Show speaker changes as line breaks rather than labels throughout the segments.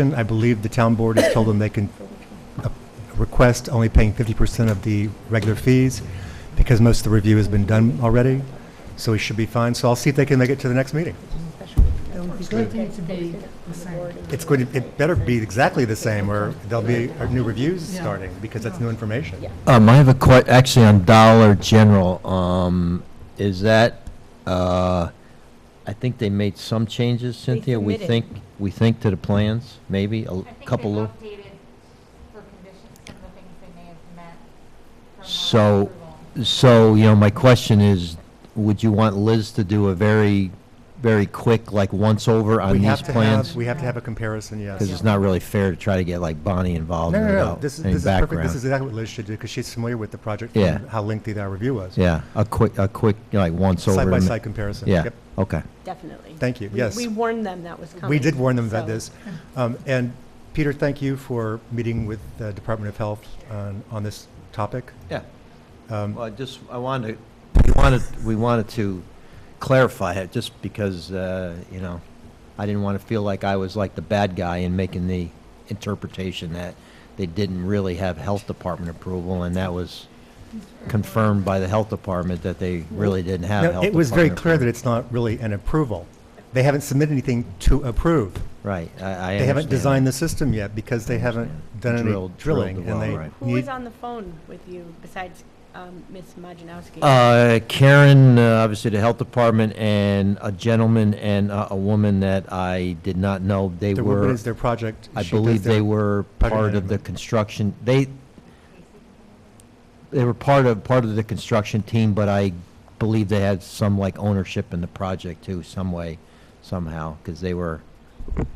I believe the town board has told them they can uh, request only paying 50% of the regular fees because most of the review has been done already. So we should be fine. So I'll see if they can make it to the next meeting.
It would be good for it to be the same.
It's going to, it better be exactly the same or there'll be uh, new reviews
Yeah.
starting because that's new information.
Um, I have a que, actually on Dollar General, um, is that, uh, I think they made some changes, Cynthia, we think,
submitted.
we think to the plans, maybe, a l- couple
I
of,
think they've updated for conditions, some of the things they may have met from our
So-
approval.
so, you know, my question is, would you want Liz to do a very, very quick, like, once-over on
We
these
have to have,
plans?
we have to have a comparison, yes.
Because it's not really fair to try to get, like, Bonnie involved
No, no, no,
without
this is,
any
this is perfect, this is
background.
exactly what Liz should do, because she's familiar with the project
Yeah.
from how lengthy our review was.
Yeah, a quick, a quick, like, once-over.
Side-by-side comparison.
Yeah,
Yep.
okay.
Definitely.
Thank you,
We-
yes.
We warned them that was coming.
We did warn them about
so-
this. Um, And Peter, thank you for meeting with the Department of Health on, on this topic.
Yeah.
Um,
Well, I just, I wanted, to- we wanted, we wanted to clarify it, just because, uh, you know, I didn't want to feel like I was like the bad guy in making the interpretation that they didn't really have health department approval, and that was confirmed by the health department that they really didn't have health
No,
department.
It was very clear that
approval.
it's not really an approval. They haven't submitted anything to approve.
Right, I, I
They haven't
understand
designed the
that.
system yet because they haven't
understand.
done any
Drilled- drilled
drilling.
the
and
well,
they
right.
Who
need-
was on the phone with you besides um, Ms. Majanowski?
Uh, Karen, uh, obviously the health department, and a gentleman and a a woman that I did not know, they
The
were.
woman is their project.
I
She does
believe they
their-
were
project
part of the
management.
construction, they, they were part of, part of the construction team, but I believe they had some like ownership in the project too, some way, somehow, because they were,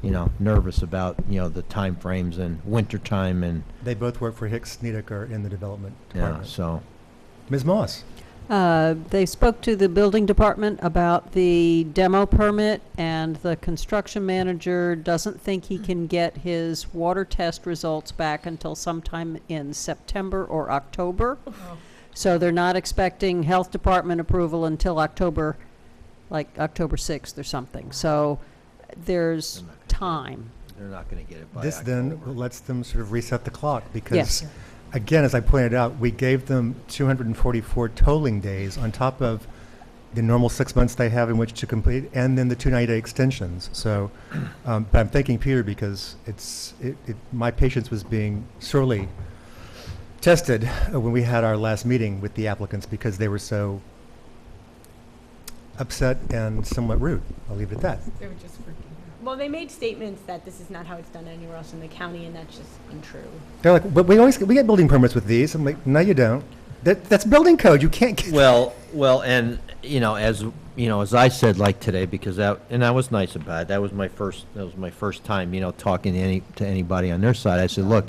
you know, nervous about, you know, the timeframes and winter time and,
They both work for Hicks Snedeker in the development
you know,
department.
so.
Ms. Moss?
Uh, They spoke to the building department about the demo permit, and the construction manager doesn't think he can get his water test results back until sometime in September or October. So they're not expecting health department approval until October, like October 6th or something. So there's time.
They're not gonna get it by
This then
October.
lets them sort of reset the clock because,
Yes.
again, as I pointed out, we gave them 244 tolling days on top of the normal six months they have in which to complete, and then the two 90-day extensions. So, um, but I'm thanking Peter because it's, it, it- my patience was being sorely tested uh, when we had our last meeting with the applicants because they were so upset and somewhat rude. I'll leave it at that.
They were just freaking
Well, they made statements that this is not how it's done anywhere else in the county, and that's just untrue.
They're like, but we always get, we get building permits with these. I'm like, no, you don't. That, that's building code. You can't get.
Well, well, and, you know, as, you know, as I said, like today, because that, and I was nice about it, that was my first, that was my first time, you know, talking to any, to anybody on their side, I said, look,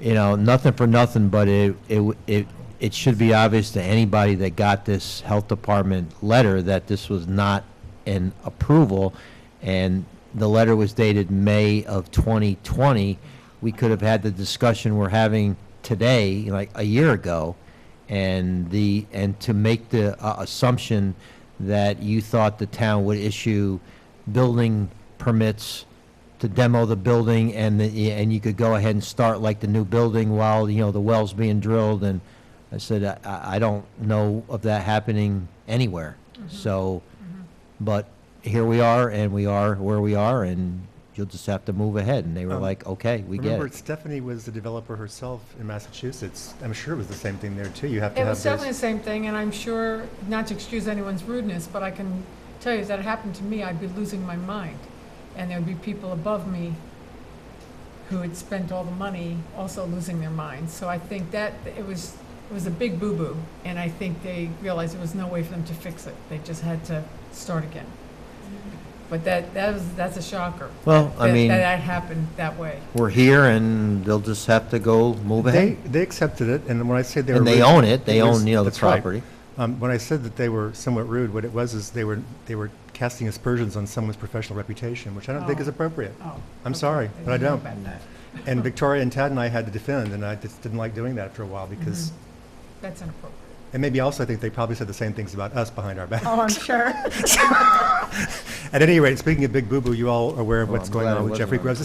you know, nothing for nothing, but it, it, w- it, it should be obvious to anybody that got this health department letter that this was not an approval, and the letter was dated May of 2020. We could have had the discussion we're having today, like a year ago, and the, and to make the uh, assumption that you thought the town would issue building permits to demo the building and the, and you could go ahead and start like the new building while, you know, the well's being drilled and I said, I- I, I don't know of that happening anywhere.
Mm-hmm.
So, but here we are and we are where we are and you'll just have to move ahead. And they were
Um,
like, okay, we get
Remember,
it.
Stephanie was the developer herself in Massachusetts. I'm sure it was the same thing there too. You have to
It
have
was definitely the
those.
same thing, and I'm sure, not to excuse anyone's rudeness, but I can tell you, if that happened to me, I'd be losing my mind. And there'd be people above me who had spent all the money also losing their minds. So I think that, it was, it was a big boo-boo, and I think they realized there was no way for them to fix it. They just had to start again. But that, that was, that's a shocker.
Well, I
that-
mean,
That that happened that way.
we're here and they'll just have to go move
They,
ahead.
they accepted it, and when I said they were.
And they
rude,
own it. They
was-
own, you know, the
that's right.
property.
Um, when I said that they were somewhat rude, what it was is they were, they were casting aspersions on someone's professional reputation, which I don't think is
Oh.
appropriate.
Oh.
I'm sorry,
okay.
but I
didn't
don't.
know about that.
And Victoria and Tad and I had to defend, and I just didn't like doing that after a while because,
Mm-hmm. That's inappropriate.
and maybe also I think they probably said the same things about us behind our back.
Oh, I'm sure.
At any rate, speaking of Big Boo Boo, you all are aware of
Well,
what's
Oh, I'm
going
glad I
on with
wasn't
Jeffrey
on
Grubbs.